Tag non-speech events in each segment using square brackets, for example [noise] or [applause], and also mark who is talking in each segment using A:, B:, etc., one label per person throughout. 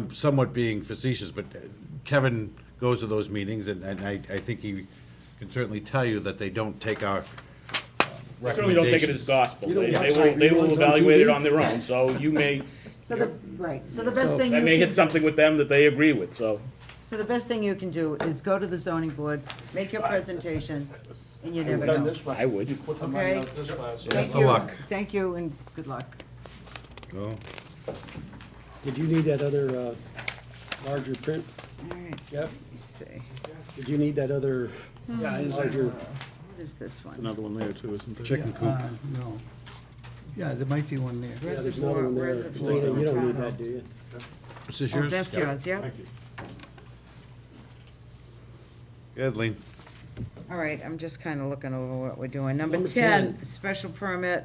A: I'm somewhat being facetious, but Kevin goes to those meetings, and, and I, I think he can certainly tell you that they don't take our uh,
B: They Certainly don't take it
A: recommendations.
B: as gospel.
C: You don't
B: They they
C: watch
B: will,
C: like
B: they will
C: reruns on
B: evaluate it
C: TV?
B: on their own,
C: [laughs]
B: so you may,
D: So the, right, so the best
C: So-
D: thing you
B: I
D: can.
B: may hit something with them that they agree with, so.
D: So the best thing you can do is go to the zoning board, make your presentation, and you never
C: Done
D: know.
C: this way.
B: I would.
C: You put the money out
D: Okay.
C: this way, so-
D: Thank
A: of
D: you.
A: luck.
D: Thank you and good luck.
A: Oh,
E: Did you need that other, uh, larger print,
D: All right,
E: Jeff?
D: let me see.
E: Did you need that other
C: Yeah, I understand.
E: larger?
D: What is this one?
B: Another one there too, isn't there?
A: Chicken coop.
F: Uh, No. Yeah, there might be one there.
E: Yeah, there's another one there.
D: Reservoir,
E: Dana, You don't need
D: reservoir.
E: that, do you?
A: This is
D: Oh,
A: yours?
D: that's yours, yeah?
A: Good, Lean.
D: All right, I'm just kind of looking over what we're doing. Number
E: Number
D: 10,
E: 10.
D: special permit,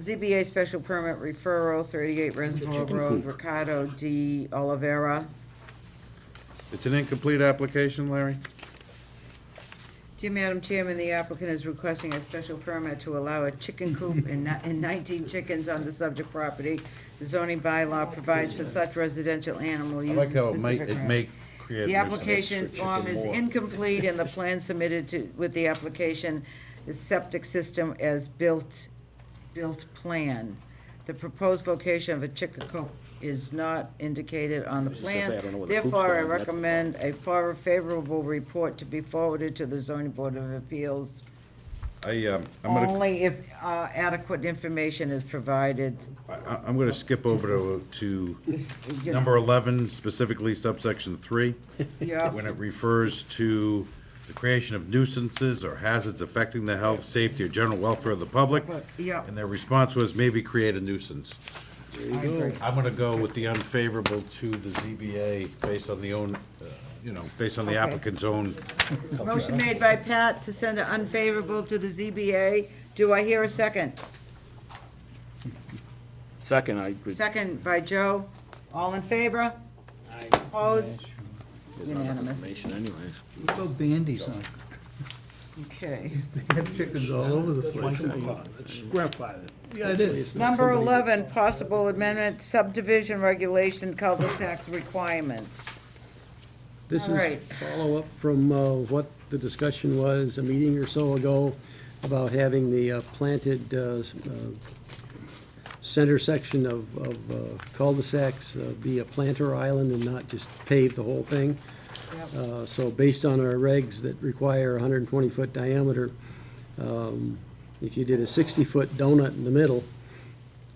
D: ZBA special permit referral, 38 Reservoir
E: chicken
D: Road,
E: coop.
D: Ricardo D. Olivera.
A: It's an incomplete application, Larry?
D: Dear Madam Chairman, the applicant is requesting a special permit to allow a chicken coop and ni- and 19 chickens on the subject property. The zoning bylaw provides for such residential animal
A: I
D: use in
A: like how it may,
D: specific.
A: it
D: manner.
A: may create.
D: The application
A: nuisance.
D: form is incomplete and the plan submitted to, with the application is septic system as built, built plan. The proposed location of a chicken coop is not indicated on the
B: was just gonna say, I
D: plan.
B: don't know where the coops
D: Therefore, I
B: are, that's the
D: recommend a far favorable report to be forwarded to the zoning board of appeals
A: I, um, I'm gonna,
D: only if uh, adequate information is provided.
A: I- I'm gonna skip over to,
D: [laughs]
A: to number eleven, specifically subsection three.
D: Yep.
A: when it refers to the creation of nuisances or hazards affecting the health, safety, or general welfare of the public.
D: Yeah.
A: And their response was maybe create a nuisance. I'm gonna go with the unfavorable to the ZBA based on the own, uh, you know, based on the
D: Okay.
A: applicant's own.
D: Motion made by Pat to send it unfavorable to the ZBA. Do I hear a second?
B: Second, I would.
D: Second by Joe. All in favor? Opposed?
B: there's not enough
D: Unanimous.
B: information anyways.
F: Throw bandies on. it.
D: Okay.
F: They have chickens all over the place.
E: Let's grandfather.
F: Yeah, it is.
D: Number 11, possible amendment subdivision regulation cul-de-sac requirements.
E: This
D: All right.
E: is follow-up from uh, what the discussion was a meeting or so ago about having the uh, planted uh, s- uh, center section of of, uh, cul-de-sacs uh, be a planter island and not just pave the whole thing. Uh, So based on our regs that require 120-foot diameter, um, if you did a 60-foot donut in the middle,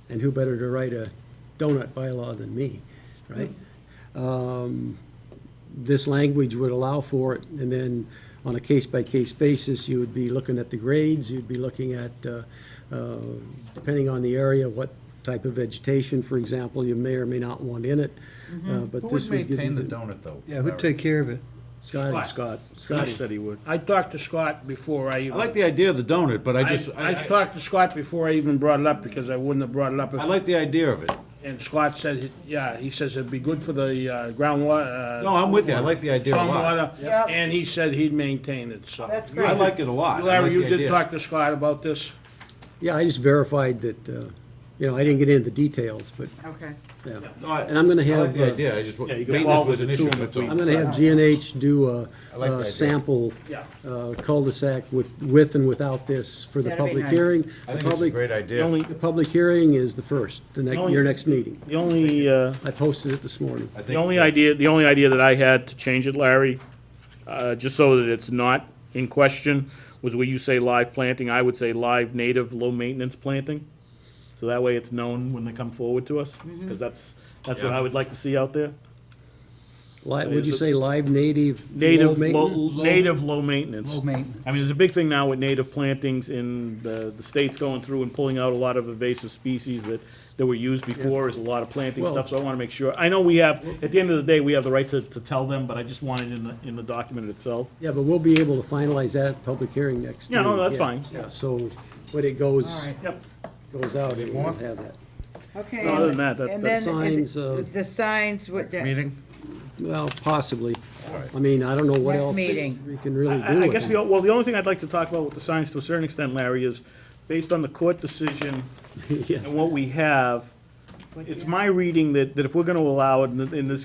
E: and who better to write a donut bylaw than me, right? Um, this language would allow for it, and then on a case-by-case basis, you would be looking at the grades, you'd be looking at, uh, uh, depending on the area, what type of vegetation, for example, you may or may not want in it, uh, but
A: Who
E: this
A: would
E: would
A: Mm-hmm.
E: give
A: maintain the
E: you.
A: donut, though?
F: Yeah, who'd take care of it?
E: Scott, Scott, Scott,
B: he would.
C: I talked to Scott before I
A: I
C: even,
A: like the idea of the donut, but I
C: I,
A: just, I,
C: I
A: I-
C: talked to Scott before I even brought it up, because I wouldn't have brought it up.
A: I
C: if-
A: like the idea of it.
C: And Scott said, he- yeah, he says it'd be good for the uh, groundwater. uh,
A: No, I'm with you. I like the idea a lot.
C: stormwater,
D: Yep.
C: And he said he'd maintain it, so.
D: That's great.
A: I like it a lot. I like
C: Larry, you
A: the
C: did
A: idea.
C: talk to Scott about this?
E: yeah, I just verified that, uh, you know, I didn't get into the details, but,
D: Okay.
E: yeah.
A: No, I-
E: And I'm gonna
A: I like
E: have,
A: the
E: uh,
A: idea, I just,
C: you go
A: maintenance
C: forward
A: was an
C: with the
A: issue
C: two and
A: with
C: the
A: me.
E: I'm gonna have G and H do a-
A: I like the
E: a
A: idea.
E: sample
C: Yeah.
E: uh, cul-de-sac with, with and without this for the
D: That'd be
E: public
D: nice.
E: hearing.
A: I
E: The
A: think it's a
E: public-
A: great idea.
B: Only-
E: The public hearing is the first, the next,
B: Only-
E: your next meeting.
B: The only, uh,
E: I posted it this morning.
A: I think
B: the only idea, the only idea that I had to change it, Larry, uh, just so that it's not in question, was where you say live planting, I would say live native, low-maintenance planting. So that way it's known when they come forward to us,
C: Mm-hmm.
B: because that's, that's what I would like to see out there.
E: Li- Would you
B: Is it-
E: say live, native, low
B: Native, low,
E: maintenance?
B: native, low maintenance.
F: Low maintenance.
B: I mean, there's a big thing now with native plantings in the, the states going through and pulling out a lot of invasive species that, that were used before, is a lot of planting
E: Well-
B: stuff, so I wanna make sure. I know we have, at the end of the day, we have the right to, to tell them, but I just want it in the, in the document itself.
E: Yeah, but we'll be able to finalize that at the public hearing next.
B: Yeah, no,
E: meeting.
B: that's fine.
E: Yeah, so when it goes,
D: All right.
B: Yep.
E: goes out, it will have that.
D: Okay.
B: No, other than that, that-
D: And
B: that-
D: then, and
E: Signs of-
D: The signs with the.
A: Meeting?
E: Well, possibly. I mean, I don't know what
D: Next
E: else
D: meeting.
E: we can really do
B: I, I
E: with
B: guess
E: it.
B: the, o- well, the only thing I'd like to talk about with the signs to a certain extent, Larry, is based on the court decision
E: Yes.
B: and what we have, it's my reading that, that if we're gonna allow it, and th- and this